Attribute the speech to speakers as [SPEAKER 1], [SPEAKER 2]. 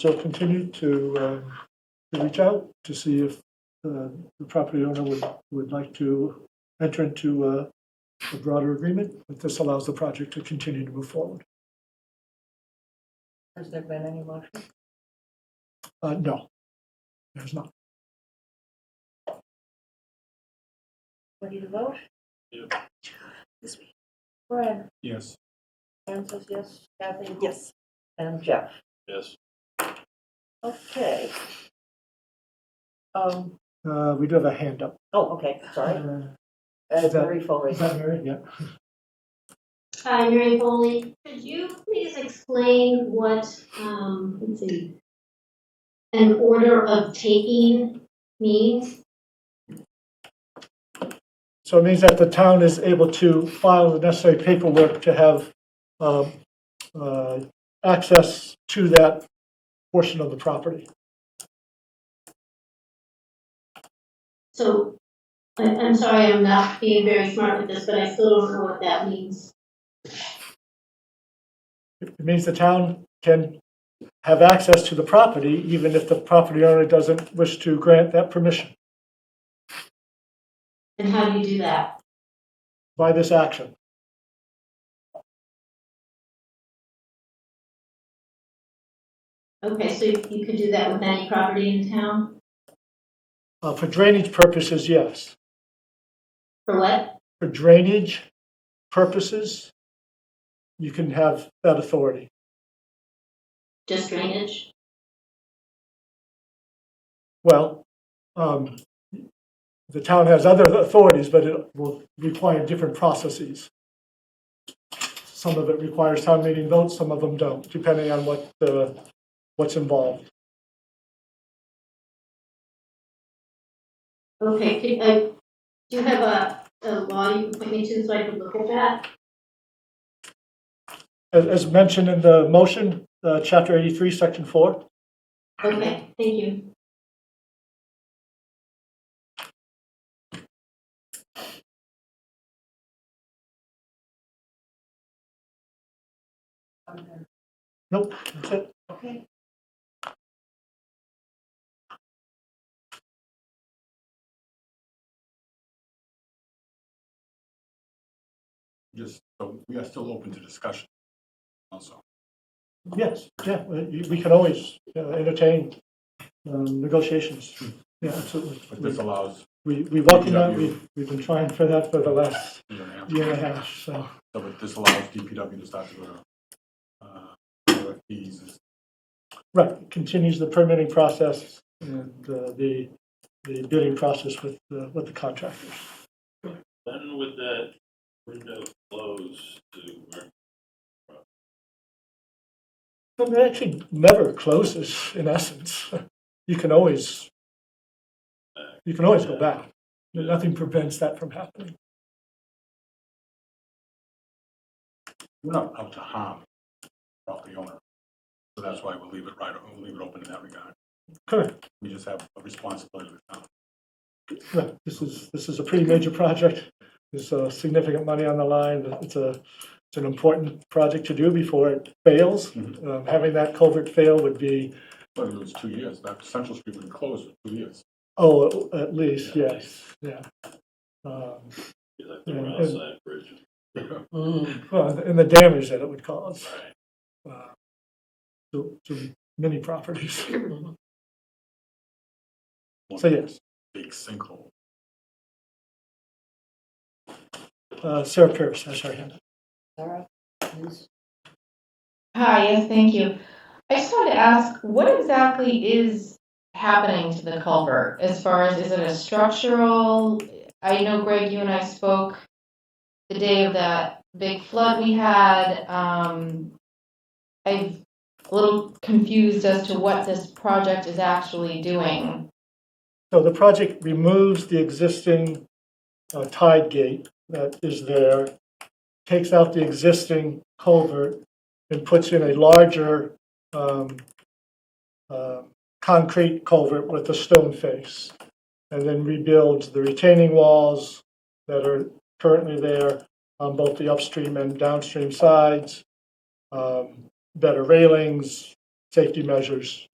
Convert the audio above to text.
[SPEAKER 1] So continue to, uh, to reach out to see if uh, the property owner would, would like to enter into uh, a broader agreement, but this allows the project to continue to move forward.
[SPEAKER 2] Has there been any motion?
[SPEAKER 1] Uh, No, there's not.
[SPEAKER 2] Ready to vote?
[SPEAKER 3] Yeah.
[SPEAKER 2] This week. Brian,
[SPEAKER 3] Yes.
[SPEAKER 2] Anne says yes, Kathy?
[SPEAKER 4] Yes.
[SPEAKER 2] And Jeff?
[SPEAKER 3] Yes.
[SPEAKER 2] Okay. Um,
[SPEAKER 1] Uh, We do have a hand up.
[SPEAKER 2] oh, okay, sorry.
[SPEAKER 1] Uh,
[SPEAKER 2] Uh,
[SPEAKER 1] that-
[SPEAKER 2] Mary Foley.
[SPEAKER 1] Is that Mary? Yeah.
[SPEAKER 5] Hi, Mary Foley. Could you please explain what, um, let's see, an order of taking means?
[SPEAKER 1] So it means that the town is able to file the necessary paperwork to have um, uh, access to that portion of the property.
[SPEAKER 5] So, I, I'm sorry, I'm not being very smart with this, but I still don't know what that means.
[SPEAKER 1] It means the town can have access to the property even if the property owner doesn't wish to grant that permission
[SPEAKER 5] And how do you do that?
[SPEAKER 1] by this action.
[SPEAKER 5] Okay, so you you could do that with any property in town?
[SPEAKER 1] Uh, For drainage purposes, yes.
[SPEAKER 5] For what?
[SPEAKER 1] For drainage purposes, you can have that authority.
[SPEAKER 5] Just drainage?
[SPEAKER 1] Well, um, the town has other authorities, but it will require different processes. Some of it requires town meeting votes, some of them don't, depending on what, uh, what's involved.
[SPEAKER 5] Okay, could, I, do you have a, a law you can point me to so I can look at that?
[SPEAKER 1] As, as mentioned in the motion, uh, chapter eighty-three, section four,
[SPEAKER 5] Okay, thank you.
[SPEAKER 1] nope, that's it.
[SPEAKER 2] Okay.
[SPEAKER 3] Just, so we are still open to discussion also.
[SPEAKER 1] Yes, yeah, we we can always uh, entertain, um, negotiations. Yeah, absolutely.
[SPEAKER 3] But this allows,
[SPEAKER 1] We, we welcome that, we, we've been trying for that for the last
[SPEAKER 3] you know,
[SPEAKER 1] year and a half, so.
[SPEAKER 3] so but this allows DPW to start to go to, uh, RFPs and
[SPEAKER 1] Right, continues the permitting process and uh, the, the bidding process with, the- with the contractors.
[SPEAKER 6] When would that window close to,
[SPEAKER 1] But it actually never closes, in essence. You can always, you can always go back. Nothing prevents that from happening.
[SPEAKER 3] we're not out to harm property owner. So that's why we'll leave it right, we'll leave it open in that regard.
[SPEAKER 1] Correct,
[SPEAKER 3] We just have a responsibility to the town.
[SPEAKER 1] right. This is, this is a pretty major project. There's uh, significant money on the line. It's a, it's an important project to do before it fails.
[SPEAKER 3] Mhm.
[SPEAKER 1] Um, Having that culvert fail would be,
[SPEAKER 3] But it was two years, that Central Street would close for two years.
[SPEAKER 1] oh, at- at least, yes, yeah. Um,
[SPEAKER 6] be like the
[SPEAKER 1] Yeah,
[SPEAKER 6] Rouse
[SPEAKER 1] and-
[SPEAKER 6] Side Bridge?
[SPEAKER 2] Mm,
[SPEAKER 1] Well, and the damage that it would cause uh, to, to many properties. So yes,
[SPEAKER 3] Big sinkhole.
[SPEAKER 1] uh, Sarah Pierce, that's her hand.
[SPEAKER 2] Sarah, please.
[SPEAKER 7] Hi, yes, thank you. I just wanted to ask, what exactly is happening to the culvert? As far as, is it a structural? I know Greg, you and I spoke the day of that big flood we had. Um, I'm a little confused as to what this project is actually doing.
[SPEAKER 1] So the project removes the existing uh, tide gate that is there, takes out the existing culvert, and puts in a larger um, uh, concrete culvert with a stone face, and then rebuilds the retaining walls that are currently there on both the upstream and downstream sides, um, better railings, safety measures,